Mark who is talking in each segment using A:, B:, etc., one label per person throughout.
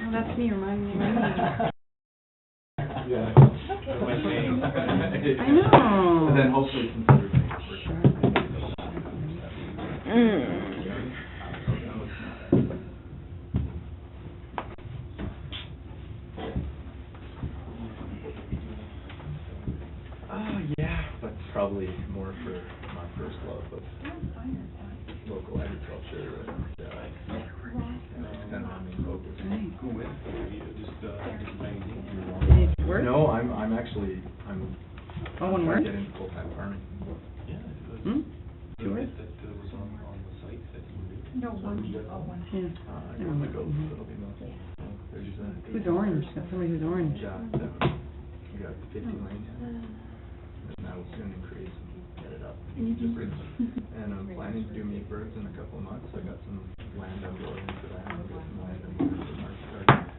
A: Well, that's me reminding me. of
B: uh,
A: my name.
C: Yeah.
B: My name.
A: I know.
C: And then hopefully consider me.
A: Mm.
C: Oh, yeah, but probably more for my first love of local agriculture and, uh, kind of, I mean, local.
B: Who went, just, uh, just magazine, you were on.
A: Did it work?
C: No, I'm, I'm actually, I'm.
A: Oh, one
C: trying
A: word?
C: to Get into full-time farming.
B: Yeah, it was-
A: Hmm?
B: the
A: Sure.
B: bit That uh, was on, on the site that you were doing.
D: No, one, oh, one.
A: Yeah.
C: Uh, I got my goats, so it'll be mostly, there's, uh.
A: Who's orange? Got somebody who's orange.
C: Yeah, that one. we got fifty lane,
D: Oh,
C: and that will soon increase, and get it up. And I'm planning to do meat birds in a couple of months, I got some land I'm going into
D: Oh,
C: that, I've got some land I'm going into market garden.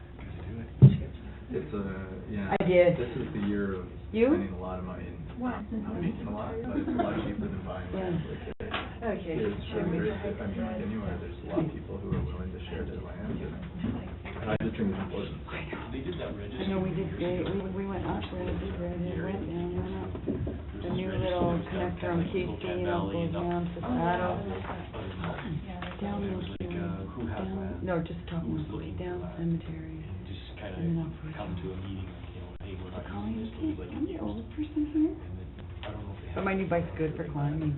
C: It's a, yeah.
A: I did.
C: This is the year of
A: You?
C: spending a lot of money, and
D: Wow.
C: not making a lot, but it's a lot cheaper than buying land, like, uh,
D: Okay.
C: it's really great that, I mean, like anywhere, there's a lot of people who are willing to share their land, and, and I just think it's important.
B: They did that register.
A: I know we did, they, we, we went up, we went up, we went down, went up. The new little connector on K Street, up, goes down to Saddle, down Milky Way, down, no, just top Milky Way, down Cemetery.
B: And just
A: And
B: kinda
A: then I'll put it
B: come
A: down.
B: to a meeting, like, you know, hey, we're not
A: Colin,
B: using this, but we'd like to
A: I'm the
B: use it.
A: old person here.
B: And then, I don't know if they have.
A: But my new bike's good for climbing.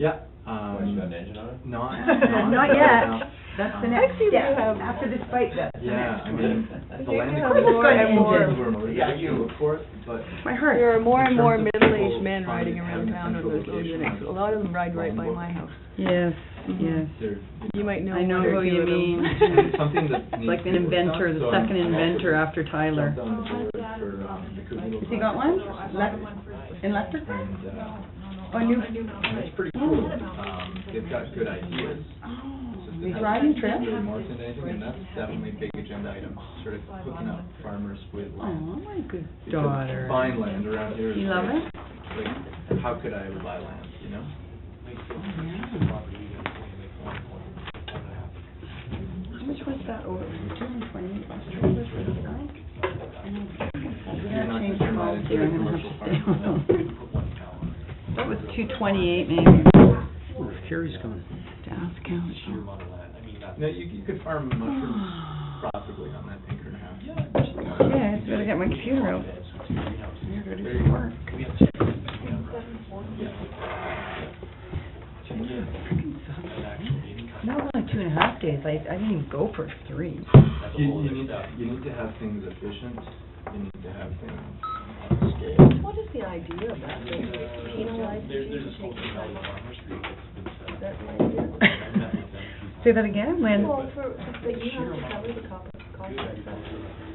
C: Yeah, um.
E: What, you got an engine on it?
C: Not,
D: Not
C: not
D: yet.
C: yet.
A: That's the
C: Um,
A: next
D: you
A: step.
D: have- After this fight, that's the
C: Yeah,
D: next
C: I
D: one.
C: mean, the land.
D: have more and more-
C: Yeah, you look for it, but.
A: My heart.
F: There are more and more
C: In terms of
F: middle-aged
C: people
F: men riding
C: finding
F: around
C: having a
F: town with
C: central
F: those little
C: location
F: units.
C: on
F: A lot of them ride right by
C: Longboat.
F: my house.
A: Yes,
F: Mhm.
A: yes.
C: They're,
F: You might know
A: I know
F: one or
A: who
F: two
A: you
F: of them.
A: mean.
C: It's something that needs
A: Like
C: to
A: an
C: be worked
A: inventor,
C: on,
A: the
C: so
A: second
C: I'm- I'm
A: inventor
C: also-
A: after Tyler.
C: jumped on the board for, um, the Kootenai
A: Has he got one?
C: Conservation
A: Left,
C: Society.
A: in Lefterville?
C: And, uh,
A: Oh, new.
C: and it's pretty cool, um, they've got good ideas.
A: Oh.
C: It's just
A: These
C: that
A: riding
C: hasn't
A: trips?
C: Really morphed into anything, and that's definitely a big agenda item, sort of hooking up farmers with
A: Oh,
C: land.
A: my good
C: Because
A: daughter.
C: Buying land around here is.
A: You love
C: like- Like, how could I ever buy land, you know?
B: Make sure it's
A: Yeah.
B: a property, you guys only make one point, one and a half.
A: How much was that over, two hundred and twenty, was it this guy? We
C: You're
A: gotta
C: not gonna
A: change
C: turn that
A: policy,
C: into a
A: I'm gonna have to stay
C: commercial farm.
B: Put one cow.
A: That was two twenty-eight maybe, to
E: Carrie's gone.
A: ask
B: Sheer
A: council.
B: amount of land, I mean, that's.
C: No, you, you could farm mushrooms profitably on that acre and a half.
B: Yeah, of course they are.
A: Yeah, I just gotta get my computer out. You're ready for work.
B: We have to check this back down.
A: That was only two and a half days, I, I didn't even go for three.
B: That's a
C: You,
B: whole
C: you
B: other
C: need,
B: step.
C: you need to have things efficient, you need to have things on a scale.
D: What is the idea about this? Penalize
B: There's,
D: people
B: there's this whole
D: taking
B: thing
D: time
B: called
D: off?
B: farmer's group that's been set up.
D: That's the idea?
B: I met with them.
A: Say that again, Lynn?
D: Well, for, but you have to cover the cost, cost of that.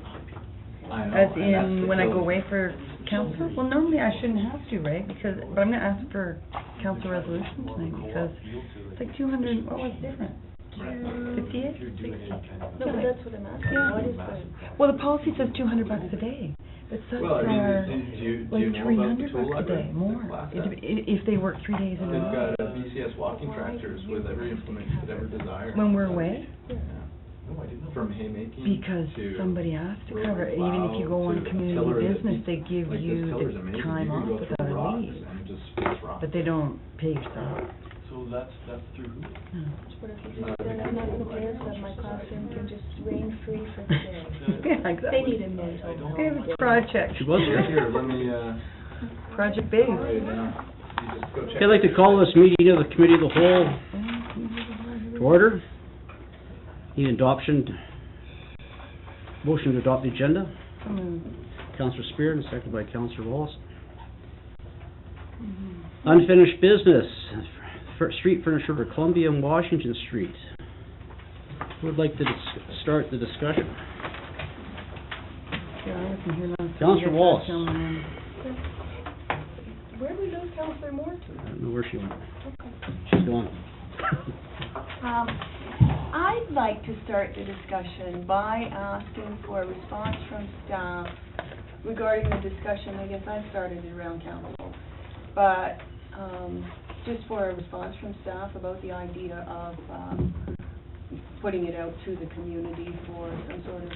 C: I know,
A: As
C: and that's
A: in,
C: the
A: when I go
C: goal.
A: away for council? Well, normally I shouldn't have to, right? Because, but I'm gonna ask for council resolution tonight because it's like two hundred, what was the difference? Fifty-eight, sixty?
D: No, but that's what I'm asking, what is the?
A: Well, the policy says two hundred bucks a day, but subs
C: Well, I mean,
A: are
C: and do you, do
A: like
C: you
A: three
C: know about the
A: hundred
C: tool
A: bucks a
C: library?
A: day, more. It dep- i- If they work three days in a
C: They've
A: row.
C: got uh, BCS walking tractors with every implement you could ever desire.
A: When we're away,
C: Yeah. From haymaking
A: because
C: to.
A: somebody has to
C: road
A: cover, it. even if you go
C: plow
A: on
C: to a tiller
A: community
C: that
A: business,
C: beats-
A: they give
C: like, this
A: you
C: tiller's amazing.
A: the time
C: You can
A: off
C: go through
A: without a
C: rocks
A: leave.
C: And it just splits rocks.
A: But they don't pay yourself.
B: So that's, that's through who?
D: What if
C: Uh,
D: you just said, I'm not gonna pay it, but my classroom can just rain free for today?
A: Yeah,
D: They
A: exactly.
D: need a mental.
A: They have a project.
E: She was
C: Here, Here, let me, uh,
A: Project Big.
C: write it down. You just go check.
E: Okay, I'd like to call this meeting of the Committee of the Whole to order. Need adoption, motion to adopt the agenda. Counselor Spear, and seconded by Counselor Wallace. Unfinished business, Fir- street furniture for Columbia and Washington Street. Who would like to dis- start the discussion? Counselor Wallace.
D: Where do we lose Counselor Moore to?
E: I don't know where she went. She's gone.
D: Um, I'd like to start the discussion by asking for a response from staff regarding the discussion, I guess I started it around council, but, um, just for a response from staff about the idea of, um, putting it out to the community for some sort of